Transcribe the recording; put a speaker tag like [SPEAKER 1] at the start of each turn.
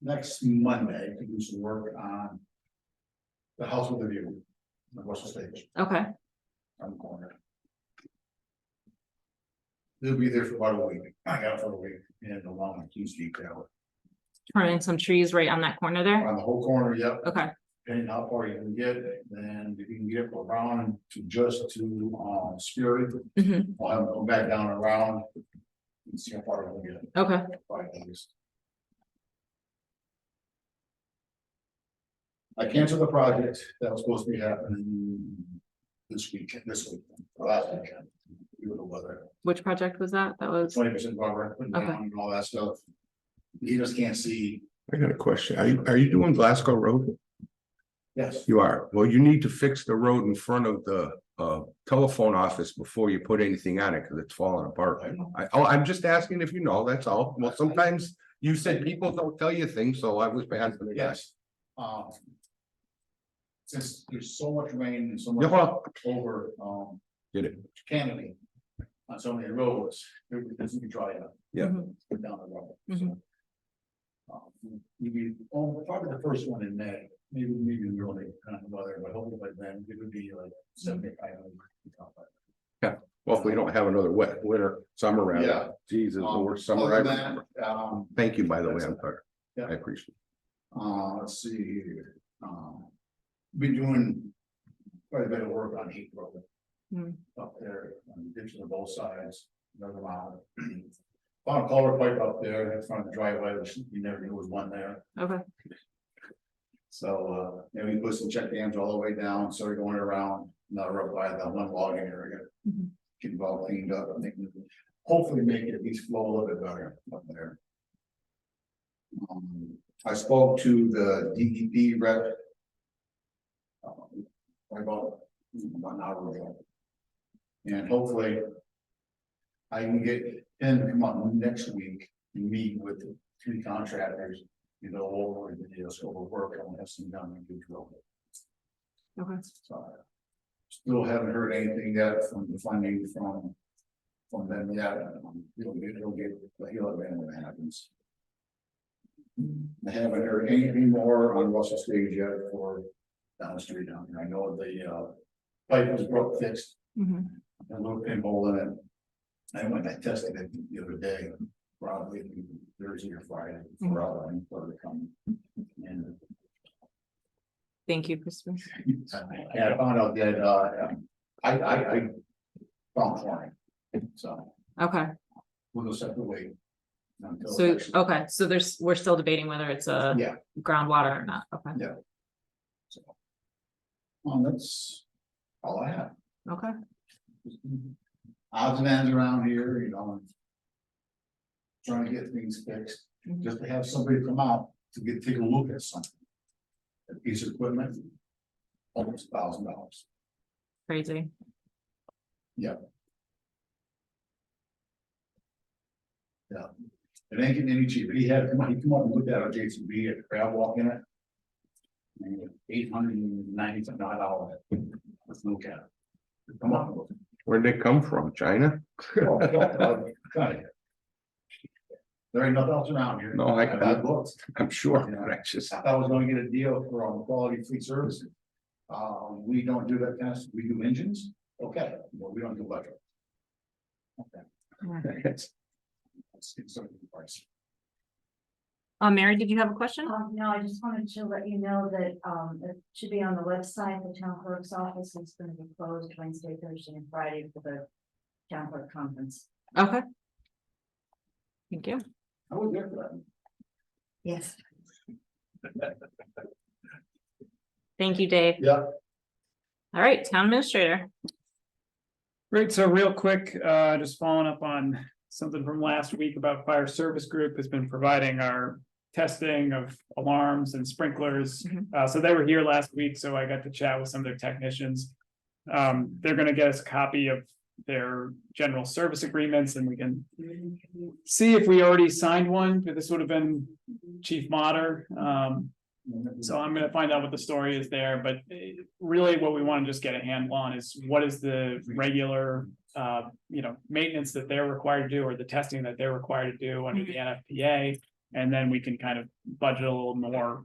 [SPEAKER 1] next Monday to do some work on. The house with the view, the western stage,
[SPEAKER 2] Okay,
[SPEAKER 1] on the corner. They'll be there for about a week, I got it for a week, and along with huge detail,
[SPEAKER 2] turning some trees right on that corner there.
[SPEAKER 1] on the whole corner, yep,
[SPEAKER 2] Okay,
[SPEAKER 1] depending how far you can get, then if you can get around to just to, uh, Spirit.
[SPEAKER 2] mhm,
[SPEAKER 1] I'll have them go back down and around. And see how far we can get,
[SPEAKER 2] okay,
[SPEAKER 1] by things. I canceled the project that was supposed to be happening this weekend, this week, or last weekend, due to the weather,
[SPEAKER 2] which project was that? That was,
[SPEAKER 1] twenty percent buffer, putting down
[SPEAKER 2] Okay.
[SPEAKER 1] and all that stuff. He just can't see,
[SPEAKER 3] I got a question. Are you, are you doing Glasgow Road?
[SPEAKER 1] yes,
[SPEAKER 3] You are. Well, you need to fix the road in front of the uh telephone office before you put anything on it because it's falling apart.
[SPEAKER 1] I know,
[SPEAKER 3] I, oh, I'm just asking if you know, that's all. Well, sometimes you said people don't tell you things, so I was bad for the guys.
[SPEAKER 1] yes, um. Since there's so much rain and so
[SPEAKER 3] Yeah,
[SPEAKER 1] much
[SPEAKER 3] well,
[SPEAKER 1] over, um,
[SPEAKER 3] get it.
[SPEAKER 1] canopy on so many roads, it doesn't be dry enough.
[SPEAKER 3] Yeah.
[SPEAKER 2] Mhm.
[SPEAKER 1] Put down the rubble. so.
[SPEAKER 2] Mhm.
[SPEAKER 1] Um, You'd be, oh, probably the first one in May, maybe, maybe in early, kind of weather, but hopefully by then it would be like seventy-five.
[SPEAKER 3] Well, if we don't have another wet winter, summer
[SPEAKER 1] Yeah.
[SPEAKER 3] round, Jesus, the worst summer I've ever.
[SPEAKER 1] Um,
[SPEAKER 3] Thank you, by the way, I'm sorry.
[SPEAKER 1] Yeah.
[SPEAKER 3] I appreciate it.
[SPEAKER 1] uh, let's see here, um, been doing quite a bit of work on heat road.
[SPEAKER 2] Hmm.
[SPEAKER 1] Up there, um, ditching on both sides, another round. Found a color pipe up there, in front of the driveway, which you never knew was one there,
[SPEAKER 2] okay,
[SPEAKER 1] so, uh, and we put some check dams all the way down, so we're going around, not right by the one logging area.
[SPEAKER 2] Mhm.
[SPEAKER 1] Get it all cleaned up, I think, we can hopefully make it at least flow a little bit better up there. Um, I spoke to the DEP rep. um, About, about an hour ago. And hopefully. I can get him to come on next week, and meet with the three contractors, you know, over the deal, so we'll work on this and done and good drill.
[SPEAKER 2] okay.
[SPEAKER 1] So, Still haven't heard anything yet from the funding from. From them yet, Um, it'll get, it'll get, he'll have been when it happens. I haven't heard anything more on Russell Stage yet for down the street down here, I know the uh. Pipe was broke fixed,
[SPEAKER 2] mhm.
[SPEAKER 1] a little pinhole in it. I went, I tested it the other day, probably Thursday or Friday, for all I for to come. And
[SPEAKER 2] Thank you, Christopher.
[SPEAKER 1] and I found out that, uh, um, I, I, I found flooring, so
[SPEAKER 2] Okay,
[SPEAKER 1] we'll just have to wait. until
[SPEAKER 2] so,
[SPEAKER 1] actually-
[SPEAKER 2] okay, so there's, we're still debating whether it's a
[SPEAKER 1] Yeah.
[SPEAKER 2] groundwater or not. Okay,
[SPEAKER 1] Well, that's all I have.
[SPEAKER 2] okay,
[SPEAKER 1] Odds and ends around here, you know. and Trying to get things fixed,
[SPEAKER 2] Mhm.
[SPEAKER 1] just to have somebody come out to get, take a look at something. A piece of equipment. Almost a thousand dollars.
[SPEAKER 2] crazy.
[SPEAKER 1] It ain't getting any cheaper. He had, he come up and looked at our J C B at crab walk in it. Eight hundred and ninety something dollars. That's no cap. Come on. look.
[SPEAKER 3] Where'd they come from? China?
[SPEAKER 1] Got it. There ain't nothing else around here.
[SPEAKER 3] No, I-
[SPEAKER 1] Bad looks.
[SPEAKER 3] I'm sure, but I just.
[SPEAKER 1] I thought I was gonna get a deal for um, quality fleet services. Uh, we don't do that fast. We do engines. Okay, well, we don't do electric. It's, it's something price.
[SPEAKER 2] Uh, Mary, did you have a question?
[SPEAKER 4] Um, no, I just wanted to let you know that, um, it should be on the website, the town clerk's office is gonna be closed Wednesday, Thursday, and Friday for the town clerk conference.
[SPEAKER 2] Okay. Thank you.
[SPEAKER 1] I would get that.
[SPEAKER 4] Yes.
[SPEAKER 2] Thank you, Dave.
[SPEAKER 1] Yeah.
[SPEAKER 2] All right, town administrator.
[SPEAKER 5] Right, so real quick, uh, just following up on something from last week about fire service group has been providing our. Testing of alarms and sprinklers,
[SPEAKER 2] Mhm.
[SPEAKER 5] uh, so they were here last week, so I got to chat with some of their technicians. Um, they're gonna get us a copy of their general service agreements and we can. See if we already signed one, but this would have been Chief Mater, um, so I'm gonna find out what the story is there, but eh, really what we wanna just get a handle on is what is the regular. Uh, you know, maintenance that they're required to do or the testing that they're required to do under the NFPA. And then we can kind of budget a little more